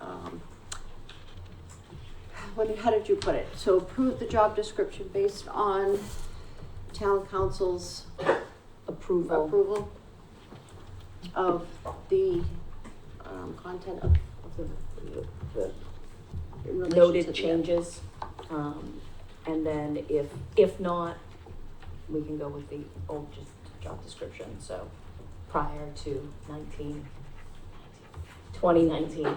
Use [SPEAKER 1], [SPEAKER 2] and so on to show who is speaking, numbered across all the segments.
[SPEAKER 1] Um, let me, how did you put it? So approve the job description based on town council's
[SPEAKER 2] approval.
[SPEAKER 1] approval of the, um, content of, of the,
[SPEAKER 2] the
[SPEAKER 1] in relation to
[SPEAKER 2] Noted
[SPEAKER 1] the-
[SPEAKER 2] changes. Um, and then if, if not, we can go with the old just job description, so prior to nineteen, twenty nineteen.
[SPEAKER 1] Yeah.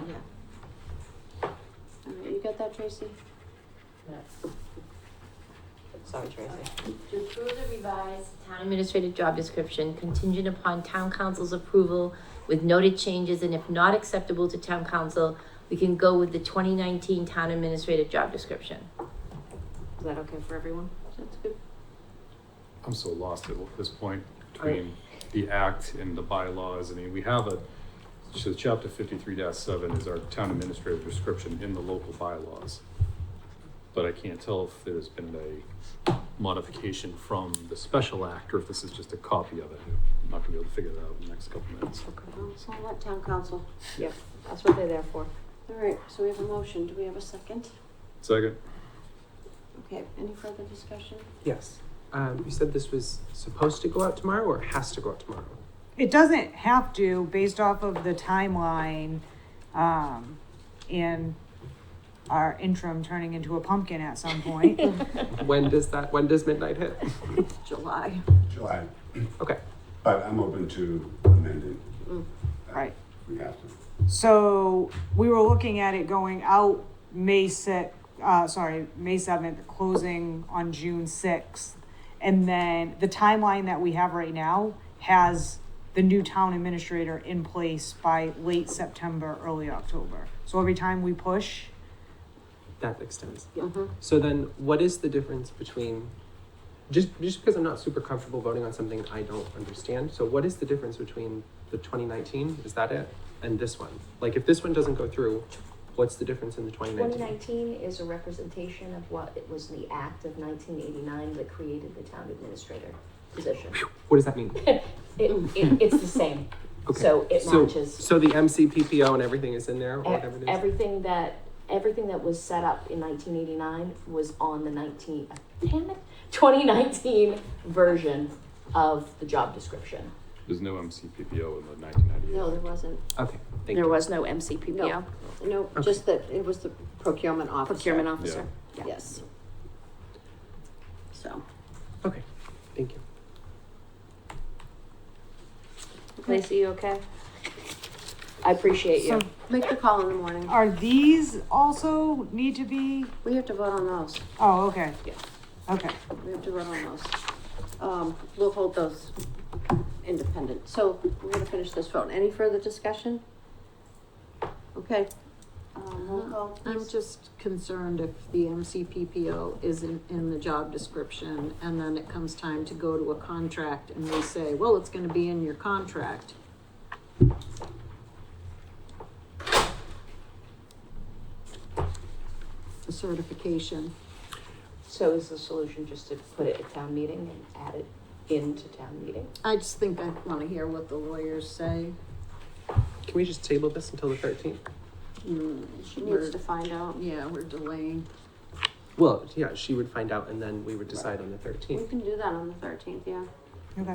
[SPEAKER 1] All right, you got that, Tracy?
[SPEAKER 2] Sorry, Tracy.
[SPEAKER 3] To approve the revised town administrative job description contingent upon town council's approval with noted changes, and if not acceptable to town council, we can go with the twenty nineteen town administrative job description.
[SPEAKER 2] Is that okay for everyone?
[SPEAKER 1] That's good.
[SPEAKER 4] I'm so lost at this point between the act and the bylaws. I mean, we have a, so chapter fifty-three seven is our town administrative description in the local bylaws. But I can't tell if there's been a modification from the special act or if this is just a copy of it. I'm not gonna be able to figure that out in the next couple minutes.
[SPEAKER 1] Well, So I'll let town council.
[SPEAKER 2] Yep, that's what they're there for.
[SPEAKER 1] All right, so we have a motion. Do we have a second?
[SPEAKER 4] Second?
[SPEAKER 1] Okay, any further discussion?
[SPEAKER 5] Yes. Um, you said this was supposed to go out tomorrow or has to go out tomorrow?
[SPEAKER 6] It doesn't have to, based off of the timeline, um, and our interim turning into a pumpkin at some point.
[SPEAKER 5] When does that, when does midnight hit?
[SPEAKER 1] July.
[SPEAKER 7] July,
[SPEAKER 5] Okay.
[SPEAKER 7] but I'm open to amending. Uh,
[SPEAKER 6] Right.
[SPEAKER 7] We have to.
[SPEAKER 6] So we were looking at it going out May six, uh, sorry, May seventh, closing on June sixth. And then the timeline that we have right now has the new town administrator in place by late September, early October. So every time we push,
[SPEAKER 5] That makes sense.
[SPEAKER 1] Mm-hmm.
[SPEAKER 5] So then what is the difference between, just, just because I'm not super comfortable voting on something I don't understand, so what is the difference between the twenty nineteen, is that it, and this one? Like if this one doesn't go through, what's the difference in the twenty
[SPEAKER 2] Twenty
[SPEAKER 5] nineteen?
[SPEAKER 2] nineteen is a representation of what it was the act of nineteen eighty-nine that created the town administrator position.
[SPEAKER 5] What does that mean?
[SPEAKER 2] It, it, it's the same,
[SPEAKER 5] Okay.
[SPEAKER 2] so it
[SPEAKER 5] So,
[SPEAKER 2] matches.
[SPEAKER 5] so the MCPPO and everything is in there, or whatever
[SPEAKER 2] Ev-
[SPEAKER 5] it is?
[SPEAKER 2] Everything that, everything that was set up in nineteen eighty-nine was on the nineteen, damn it, twenty nineteen version of the job description.
[SPEAKER 4] There's no MCPPO in the nineteen
[SPEAKER 1] No, there
[SPEAKER 4] ninety-eight.
[SPEAKER 1] wasn't.
[SPEAKER 5] Okay, thank
[SPEAKER 2] There
[SPEAKER 5] you.
[SPEAKER 2] was no MCPPO,
[SPEAKER 1] No, just that it was the procurement officer.
[SPEAKER 2] procurement
[SPEAKER 4] Yeah.
[SPEAKER 2] officer. yeah.
[SPEAKER 1] Yes. So.
[SPEAKER 5] Okay, thank you.
[SPEAKER 2] Lacey, you okay? I appreciate you.
[SPEAKER 6] so
[SPEAKER 1] Make the call in the morning.
[SPEAKER 6] Are these also need to be,
[SPEAKER 1] We have to vote on those.
[SPEAKER 6] oh, okay.
[SPEAKER 1] Yeah.
[SPEAKER 6] Okay,
[SPEAKER 1] We have to vote on those. Um, we'll hold those independent. So we're gonna finish this vote. Any further discussion? Okay. Um, roll call,
[SPEAKER 8] I'm
[SPEAKER 1] please.
[SPEAKER 8] just concerned if the MCPPO isn't in the job description and then it comes time to go to a contract and we say, well, it's gonna be in your contract. The certification.
[SPEAKER 2] So is the solution just to put it at town meeting and add it into town meeting?
[SPEAKER 8] I just think I wanna hear what the lawyers say.
[SPEAKER 5] Can we just table this until the thirteenth?
[SPEAKER 8] Hmm,
[SPEAKER 1] She needs to find out.
[SPEAKER 8] Yeah, we're delaying.
[SPEAKER 5] Well, yeah, she would find out and then we would decide on the
[SPEAKER 1] We
[SPEAKER 5] thirteenth.
[SPEAKER 1] can do that on the thirteenth, yeah.
[SPEAKER 6] okay.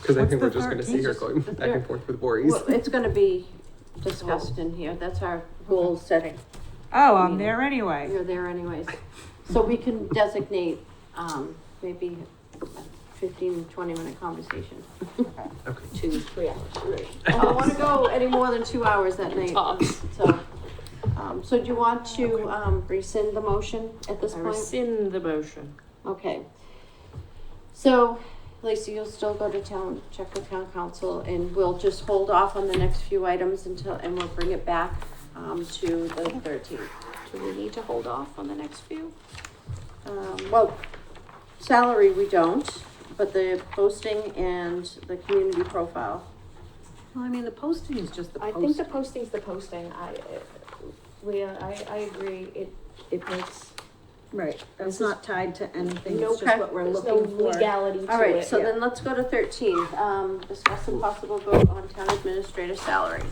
[SPEAKER 5] Because I
[SPEAKER 6] What's
[SPEAKER 5] think
[SPEAKER 6] the
[SPEAKER 5] we're just gonna see
[SPEAKER 6] 13th?
[SPEAKER 5] her going
[SPEAKER 1] Just-
[SPEAKER 5] back and forth with worries.
[SPEAKER 1] Well, it's gonna be discussed in here. That's our goal setting.
[SPEAKER 6] Oh, I'm there anyway.
[SPEAKER 1] You're there anyways. So we can designate, um, maybe a 15, 20 minute conversation.
[SPEAKER 5] Okay.
[SPEAKER 2] Two, three hours.
[SPEAKER 1] I don't wanna go any more than two hours that night. So, um, so do you want to, um, rescind the motion at this point?
[SPEAKER 2] rescind the motion.
[SPEAKER 1] Okay. So, Lacey, you'll still go to town, check with town council, and we'll just hold off on the next few items until, and we'll bring it back, um, to the thirteenth.
[SPEAKER 2] Do we need to hold off on the next few?
[SPEAKER 1] Um, well, salary we don't, but the posting and the community profile.
[SPEAKER 8] Well, I mean, the posting is just the
[SPEAKER 2] I
[SPEAKER 8] post.
[SPEAKER 2] think the posting's the posting, I, uh, Leah, I, I agree, it, it makes
[SPEAKER 8] Right,
[SPEAKER 2] This
[SPEAKER 8] it's
[SPEAKER 2] is-
[SPEAKER 8] not tied to anything,
[SPEAKER 2] no,
[SPEAKER 8] it's just what we're
[SPEAKER 2] there's
[SPEAKER 8] looking
[SPEAKER 2] no
[SPEAKER 8] for.
[SPEAKER 2] legality
[SPEAKER 1] All
[SPEAKER 2] to
[SPEAKER 1] right,
[SPEAKER 2] it.
[SPEAKER 1] so then let's go to thirteen, um, discuss a possible vote on town administrator salary.